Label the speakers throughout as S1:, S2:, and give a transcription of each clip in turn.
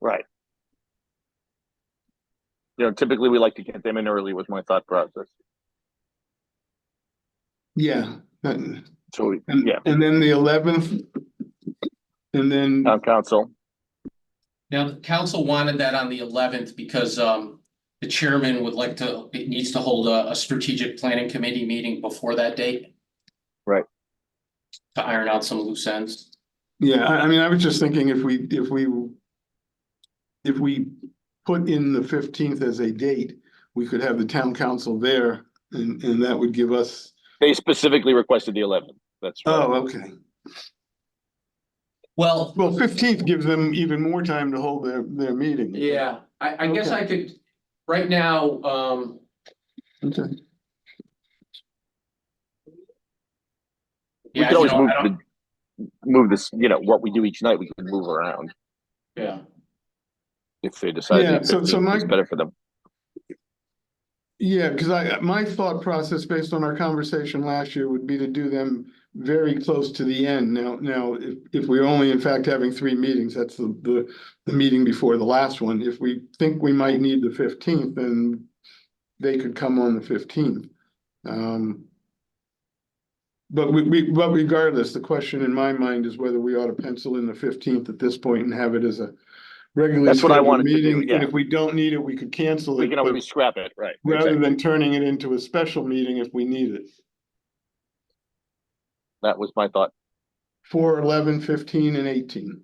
S1: Right. You know, typically we like to get them in early was my thought process.
S2: Yeah, and,
S1: So we-
S2: and
S1: Yeah.
S2: and then the eleventh. And then,
S1: town council,
S3: Now, the council wanted that on the eleventh because um the chairman would like to, it needs to hold a a strategic planning committee meeting before that date.
S1: Right.
S3: To iron out some loose ends.
S2: yeah, I, I mean, I was just thinking if we, if we. If we put in the fifteenth as a date, we could have the town council there and, and that would give us,
S1: they specifically requested the eleventh. That's
S2: oh,
S1: right.
S2: okay.
S3: Well,
S2: Well, fifteenth gives them even more time to hold their, their meeting.
S3: yeah, I I guess I could, right now, um,
S2: Okay.
S1: We
S3: yeah,
S1: could
S3: you
S1: always
S3: know,
S1: move,
S3: I don't,
S1: the- move this, you know, what we do each night, we could move around
S3: yeah.
S1: if they decide.
S2: Yeah,
S1: the
S2: so- so
S1: 15th
S2: my-
S1: is Better for them.
S2: Yeah, because I, my thought process based on our conversation last year would be to do them very close to the end. Now, now, if, if we're only in fact having three meetings, that's the, the, the meeting before the last one. If we think we might need the fifteenth, then they could come on the fifteenth. Um, but we, we, but regardless, the question in my mind is whether we ought to pencil in the fifteenth at this point and have it as a regularly
S1: That's what I
S2: scheduled
S1: wanted to do,
S2: meeting. And
S1: yeah.
S2: if we don't need it, we could cancel it.
S1: We can
S2: but-
S1: always scrap it, right?
S2: rather
S1: exactly.
S2: than turning it into a special meeting if we need it.
S1: That was my thought.
S2: Four, eleven, fifteen, and eighteen.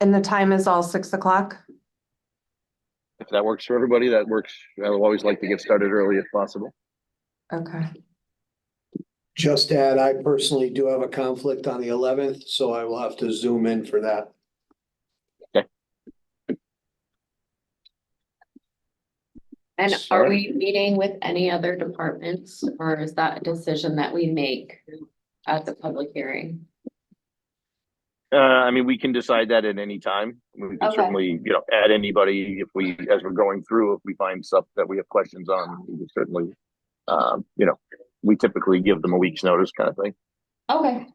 S4: And the time is all six o'clock?
S1: If that works for everybody, that works. I would always like to get started early if possible.
S4: Okay.
S5: Just to add, I personally do have a conflict on the eleventh, so I will have to zoom in for that.
S6: And are
S1: Sure.
S6: we meeting with any other departments or is that a decision that we make at the public hearing?
S1: Uh, I mean, we can decide that at any time. We can
S6: Okay.
S1: certainly, you know, add anybody if we, as we're going through, if we find stuff that we have questions on, we can certainly. Um, you know, we typically give them a week's notice kind of thing.
S6: Okay,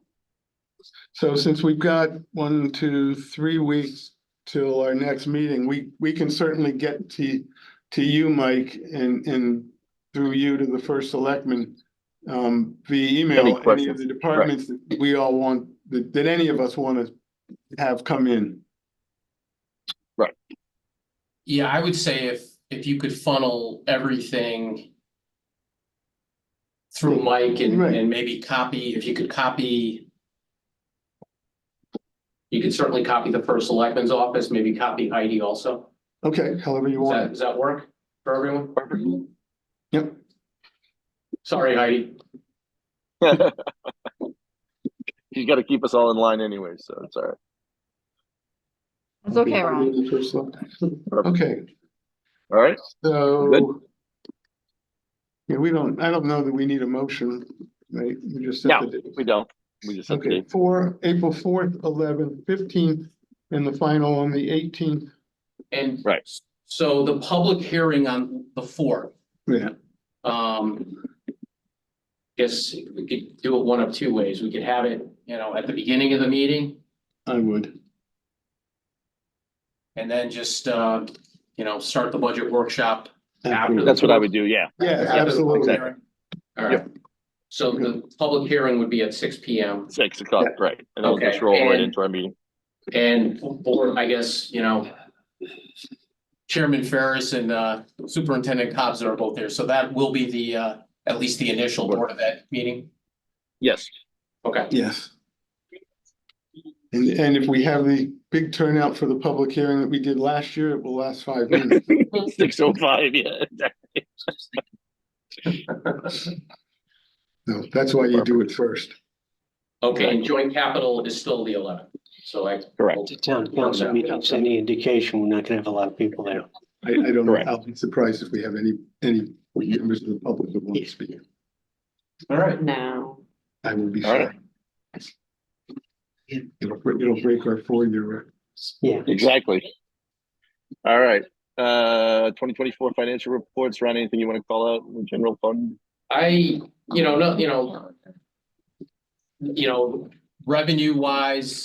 S2: So since we've got one, two, three weeks till our next meeting, we, we can certainly get to, to you, Mike, and, and through you to the first selectman, um, via
S1: Any
S2: email, any of
S1: questions?
S2: the departments that we all want, that, that any of us want to have come in.
S3: Yeah, I would say if, if you could funnel everything through Mike and,
S2: Right.
S3: and maybe copy, if you could copy you could certainly copy the first selectman's office, maybe copy Heidi also.
S2: Okay, however you
S3: Does that,
S2: want.
S3: does that work for everyone?
S2: Yep.
S3: Sorry, Heidi.
S1: You gotta keep us all in line anyway, so it's all right.
S7: It's okay, Ron.
S2: The first selectman. Okay.
S1: All right,
S2: So. Yeah, we don't, I don't know that we need a motion, right? We just. set
S1: No.
S2: the date.
S1: we don't. We just have to
S2: Okay,
S1: date.
S2: for April fourth, eleventh, fifteenth, and the final on the eighteenth.
S3: And
S1: Right.
S3: so the public hearing on the fourth,
S2: Yeah.
S3: Um. Guess we could do it one of two ways. We could have it, you know, at the beginning of the meeting
S2: I would.
S3: and then just, uh, you know, start the budget workshop. After
S1: That's what I would do, yeah.
S2: Yeah,
S3: after the public
S2: absolutely.
S3: hearing. All right. So the public hearing would be at six P M
S1: Six o'clock, right. And then we'll just
S3: Okay,
S1: roll right
S3: and-
S1: into our meeting.
S3: and board, I guess, you know. Chairman Ferris and, uh, Superintendent Cobb's are both there. So that will be the, uh, at least the initial board of that meeting.
S1: Yes,
S3: Okay.
S2: Yes. And, and if we have the big turnout for the public hearing that we did last year, it will last five minutes.
S1: six oh five, yeah.
S2: No, that's why you do it first.
S3: Okay, and joint capital is still the eleventh. So I.
S1: Correct.
S5: The town council meetings, any indication, we're not gonna have a lot of people there.
S2: I, I don't, know.
S1: Correct.
S2: I'll be surprised if we have any, any members of the public that want to speak.
S3: All right.
S6: no.
S2: I will be
S1: All right.
S2: sure. It'll, break- it'll break our four-year record.
S5: Yeah.
S1: Exactly. All right, uh, twenty twenty-four financial reports, Ron, anything you wanna call out, in general fund?
S3: I, you know, no, you know. You know, revenue wise,